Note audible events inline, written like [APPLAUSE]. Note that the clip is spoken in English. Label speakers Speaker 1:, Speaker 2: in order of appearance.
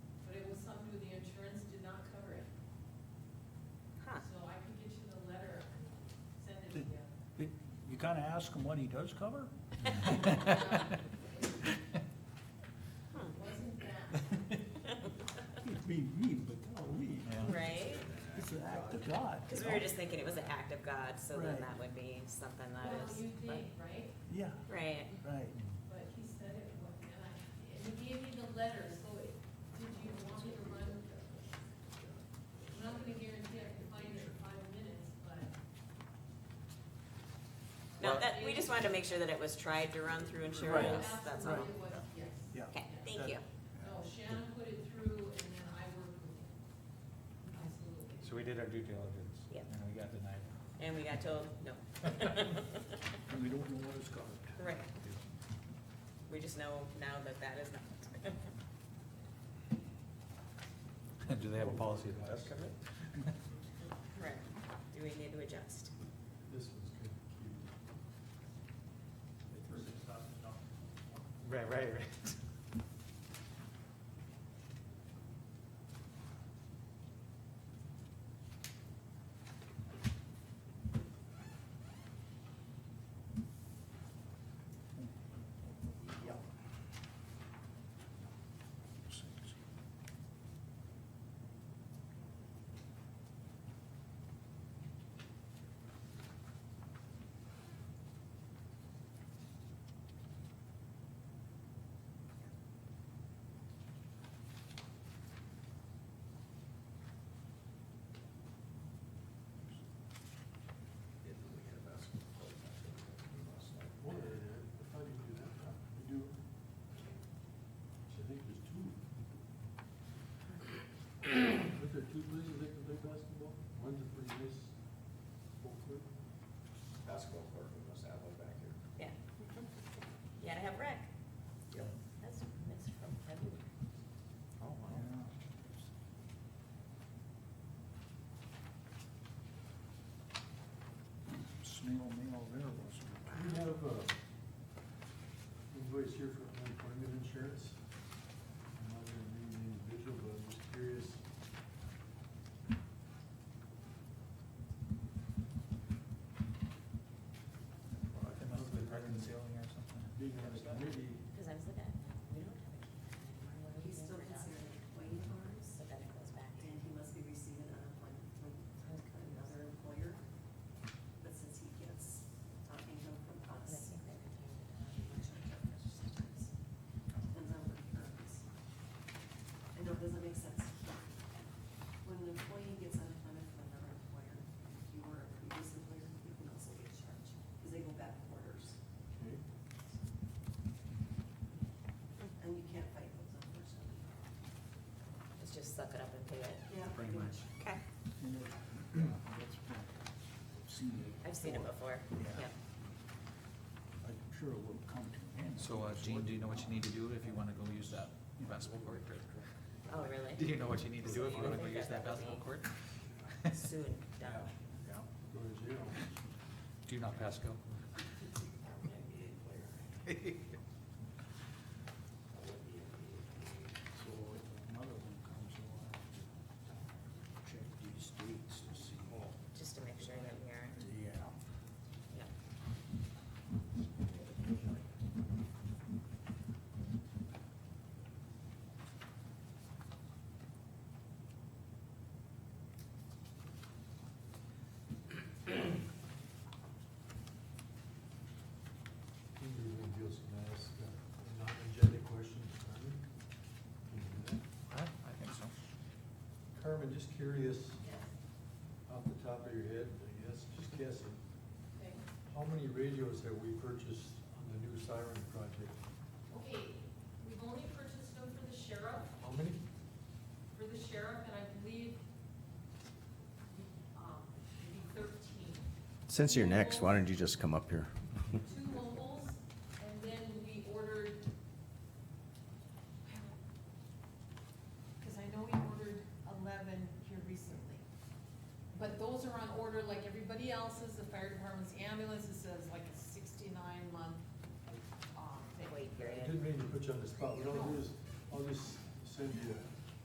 Speaker 1: Um,
Speaker 2: Ah.
Speaker 3: kind of ask him what he does cover?
Speaker 1: Wasn't
Speaker 2: [LAUGHS]
Speaker 1: that,
Speaker 4: It'd be mean, but golly,
Speaker 3: Yeah.
Speaker 2: right?
Speaker 4: it's an act of God.
Speaker 2: Cause we were just thinking it was an act of God, so then
Speaker 4: Right.
Speaker 2: that would be something that
Speaker 1: well,
Speaker 2: is.
Speaker 1: you
Speaker 2: but-
Speaker 1: did, right?
Speaker 4: Yeah,
Speaker 2: Right,
Speaker 4: right.
Speaker 1: But he said it wasn't, and I, and he gave me the letter, so it, did you want me to run? I'm not gonna guarantee I can find it in five minutes, but.
Speaker 2: no, that, we just wanted to make sure that it was tried to run through insurance, that's all.
Speaker 1: Absolutely was, yes.
Speaker 4: Yeah.
Speaker 2: Okay, thank you.
Speaker 1: No, Shannon put it through and then I worked with him. Absolutely.
Speaker 5: So we did our due diligence.
Speaker 2: Yep.
Speaker 5: And we got denied.
Speaker 2: And we got told, no.
Speaker 3: We don't know what it's covered.
Speaker 2: Right. We just know now that that is not.
Speaker 5: [LAUGHS] Do they have a policy that does cover it?
Speaker 2: Right, do we need to adjust?
Speaker 6: This one's kind of cute.
Speaker 5: Right, right, right.
Speaker 4: Yeah.
Speaker 6: Well, I thought you do that, huh? You do. I think there's two. Aren't there two places they can play basketball? One's a pretty nice full court.
Speaker 7: basketball court, we must have one back here.
Speaker 2: Yeah. You gotta have rec.
Speaker 7: Yep.
Speaker 2: That's, that's from February.
Speaker 5: Oh, wow.
Speaker 3: Snail mail there was.
Speaker 6: Do you have a invoice here for unemployment insurance? I'm not gonna name an individual, but I'm just curious.
Speaker 5: They must have been reconciling or something.
Speaker 6: Being on the committee,
Speaker 2: Cause I was looking at, we don't have a kid.
Speaker 8: He's still considered an employee of ours,
Speaker 2: So then it goes back to.
Speaker 8: and he must be receiving unemployment from another employer. But since he gets uh, income from
Speaker 2: I
Speaker 8: us,
Speaker 2: think they retained it, uh,
Speaker 8: depends on what he earns. I know it doesn't make sense. When an employee gets unemployment from another employer, if you were a previous employer, you can also get charged, because they go back quarters,
Speaker 6: okay,
Speaker 8: and you can't fight those unfortunately.
Speaker 2: Let's just suck it up and pay it.
Speaker 8: Yeah,
Speaker 5: Pretty much.
Speaker 2: Okay. I've seen it before,
Speaker 3: Yeah.
Speaker 2: yeah.
Speaker 3: I'm sure it will come to an end.
Speaker 5: So, uh, Gene, do you know what you need to do if you wanna go use that basketball court?
Speaker 2: Oh,
Speaker 5: [LAUGHS]
Speaker 2: really?
Speaker 5: Do you know what you need to do if you wanna go use that basketball court? [LAUGHS]
Speaker 2: Soon, done.
Speaker 6: go to jail.
Speaker 5: Do you not pass go?
Speaker 7: I'm an NBA player. I would be an NBA player.
Speaker 3: So if another one comes along, check these dates to see.
Speaker 2: Just to make sure that we are,
Speaker 3: Yeah.
Speaker 2: yeah.
Speaker 6: Can you reveal some nice, uh, non-agenda questions, Carmen? Can you do that?
Speaker 5: I, I think so.
Speaker 6: Carmen, just curious,
Speaker 1: Yes,
Speaker 6: off the top of your head, I guess, just guessing,
Speaker 1: okay.
Speaker 6: how many radios have we purchased on the new siren project?
Speaker 1: Okay, we've only purchased them for the sheriff,
Speaker 6: How many?
Speaker 1: for the sheriff, and I believe, um, maybe thirteen.
Speaker 7: Since you're next, why don't you just come up here?
Speaker 1: two mobiles, and then we ordered, because I know we ordered eleven here recently. But those are on order like everybody else's, the fire department's ambulance, it says like a sixty-nine month, um, thing.
Speaker 2: Wait
Speaker 6: I
Speaker 2: period.
Speaker 6: didn't mean to put you on the spot, but I'll just, I'll just send you a